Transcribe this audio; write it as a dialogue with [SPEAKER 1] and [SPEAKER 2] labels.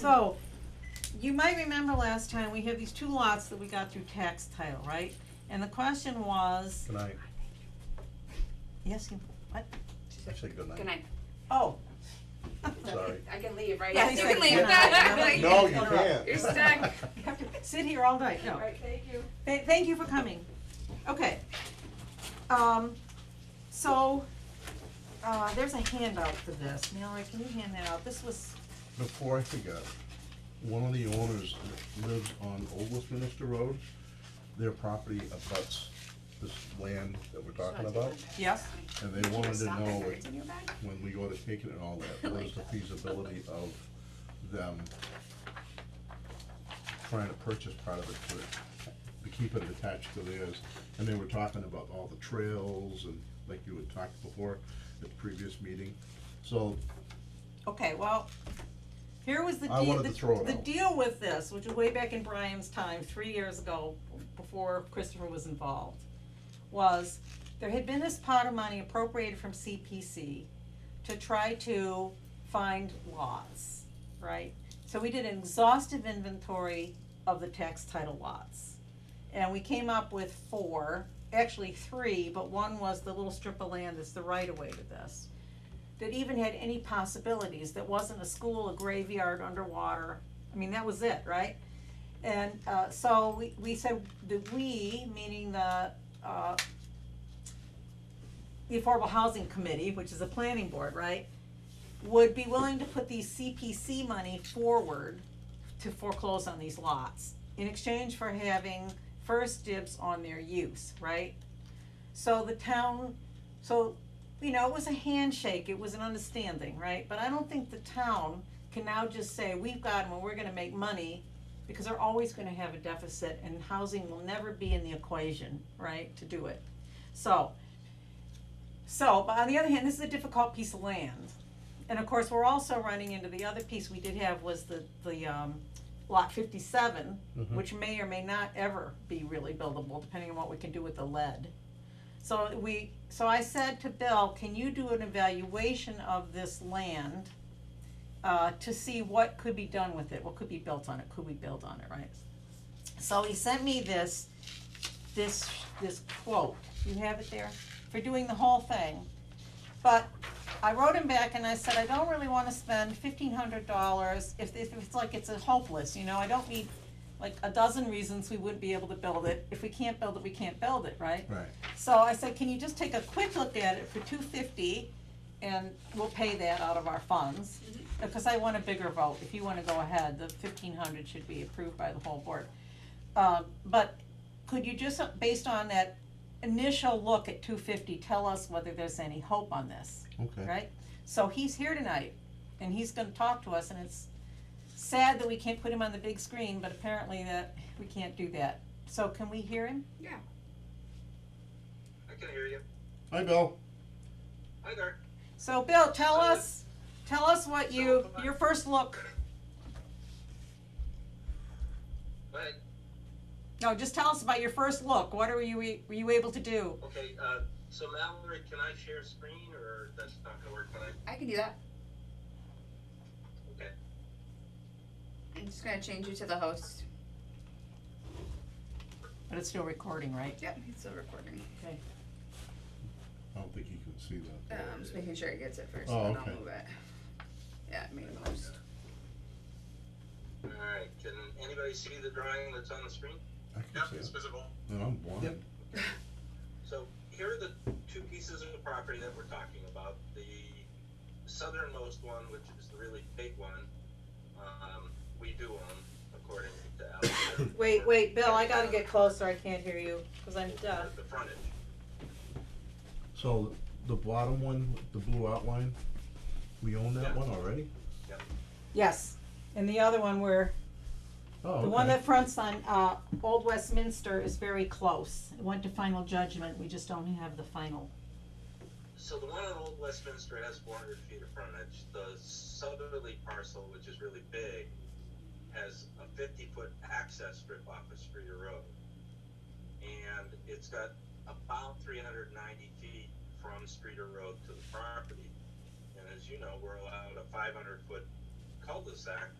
[SPEAKER 1] So, you might remember last time, we had these two lots that we got through tax title, right? And the question was,
[SPEAKER 2] Good night.
[SPEAKER 1] yes, you, what?
[SPEAKER 2] I said good night.
[SPEAKER 3] Good night.
[SPEAKER 1] Oh.
[SPEAKER 2] Sorry.
[SPEAKER 3] I can leave, right?
[SPEAKER 1] Yeah,
[SPEAKER 3] you
[SPEAKER 1] he
[SPEAKER 3] can
[SPEAKER 1] said
[SPEAKER 3] leave.
[SPEAKER 1] good night.
[SPEAKER 2] No, you can't.
[SPEAKER 3] You're stuck.
[SPEAKER 1] Sit here all night, no.
[SPEAKER 3] All right, thank you.
[SPEAKER 1] Th- thank you for coming. Okay. Um, so, uh, there's a handout for this. Mallory, can you hand that out? This was,
[SPEAKER 2] Before I forget, one of the owners that lives on Old Westminster Road. Their property abuts this land that we're talking about,
[SPEAKER 1] yes?
[SPEAKER 2] and they wanted to
[SPEAKER 3] Stop
[SPEAKER 2] know
[SPEAKER 3] it. It's in your bag.
[SPEAKER 2] when we go to take it and all that, what is the feasibility of them trying to purchase part of it to, to keep it attached to theirs? And they were talking about all the trails and, like you had talked before at the previous meeting. So
[SPEAKER 1] Okay, well, here was the
[SPEAKER 2] I
[SPEAKER 1] deal,
[SPEAKER 2] wanted to throw
[SPEAKER 1] the,
[SPEAKER 2] it
[SPEAKER 1] the
[SPEAKER 2] out.
[SPEAKER 1] deal with this, which was way back in Brian's time, three years ago, before Christopher was involved, was there had been this pot of money appropriated from CPC to try to find lots, right? So we did an exhaustive inventory of the tax title lots. And we came up with four, actually three, but one was the little strip of land that's the right of way to this that even had any possibilities, that wasn't a school, a graveyard, underwater, I mean, that was it, right? And, uh, so we, we said, the we, meaning the, uh, the Affordable Housing Committee, which is a planning board, right? Would be willing to put these CPC money forward to foreclose on these lots in exchange for having first dibs on their use, right? So the town, so you know, it was a handshake, it was an understanding, right? But I don't think the town can now just say, we've got them and we're gonna make money, because they're always gonna have a deficit and housing will never be in the equation, right, to do it. So, so, but on the other hand, this is a difficult piece of land. And of course, we're also running into the other piece we did have was the, the, um, lot fifty-seven,
[SPEAKER 2] Mhm.
[SPEAKER 1] which may or may not ever be really buildable, depending on what we can do with the lead. So we, so I said to Bill, can you do an evaluation of this land? Uh, to see what could be done with it, what could be built on it, could we build on it, right? So he sent me this, this, this quote, you have it there, for doing the whole thing. But I wrote him back and I said, I don't really wanna spend fifteen hundred dollars if, if it's like it's a hopeless, you know, I don't need like a dozen reasons we wouldn't be able to build it, if we can't build it, we can't build it, right?
[SPEAKER 2] Right,
[SPEAKER 1] So I said, can you just take a quick look at it for two fifty and we'll pay that out of our funds? Because I want a bigger vote, if you wanna go ahead, the fifteen hundred should be approved by the whole board. Um, but could you just, uh, based on that initial look at two fifty, tell us whether there's any hope on this?
[SPEAKER 2] okay.
[SPEAKER 1] right? So he's here tonight, and he's gonna talk to us, and it's sad that we can't put him on the big screen, but apparently that, we can't do that. So can we hear him?
[SPEAKER 3] Yeah.
[SPEAKER 4] I can hear you.
[SPEAKER 2] Hi, Bill.
[SPEAKER 4] Hi there.
[SPEAKER 1] So Bill, tell us, tell us what you, your first look,
[SPEAKER 4] Hi.
[SPEAKER 1] no, just tell us about your first look, what are you, were you able to do?
[SPEAKER 4] Okay, uh, so Mallory, can I share screen or that's not gonna work, but I,
[SPEAKER 3] I can do that.
[SPEAKER 4] okay.
[SPEAKER 3] I'm just gonna change you to the host.
[SPEAKER 1] But it's still recording, right?
[SPEAKER 3] Yep, it's still recording.
[SPEAKER 1] Okay.
[SPEAKER 2] I don't think you can see
[SPEAKER 3] Uh,
[SPEAKER 2] that.
[SPEAKER 3] I'm just making sure it gets it first,
[SPEAKER 2] Oh,
[SPEAKER 3] and then
[SPEAKER 2] okay.
[SPEAKER 3] I'll move it. Yeah, I made a host.
[SPEAKER 4] Alright, can anybody see the drawing that's on the screen?
[SPEAKER 2] I can see
[SPEAKER 4] visible.
[SPEAKER 2] it. No, I'm blind.
[SPEAKER 4] So here are the two pieces of property that we're talking about. The southernmost one, which is the really big one, um, we do own according to Al.
[SPEAKER 1] Wait, wait, Bill, I gotta get closer, I can't hear you, cause I'm deaf.
[SPEAKER 4] The frontage.
[SPEAKER 2] So the bottom one, the blue outline, we own that
[SPEAKER 4] Yeah.
[SPEAKER 2] one already?
[SPEAKER 1] Yes, and the other one where
[SPEAKER 2] Oh, okay.
[SPEAKER 1] The one that fronts on, uh, Old Westminster is very close. It went to final judgment, we just don't have the final.
[SPEAKER 4] So the one on Old Westminster has four hundred feet of frontage. The southerly parcel, which is really big, has a fifty-foot access strip off of Streeter Road. And it's got about three hundred ninety feet from Streeter Road to the property. And as you know, we're allowed a five hundred foot cul-de-sac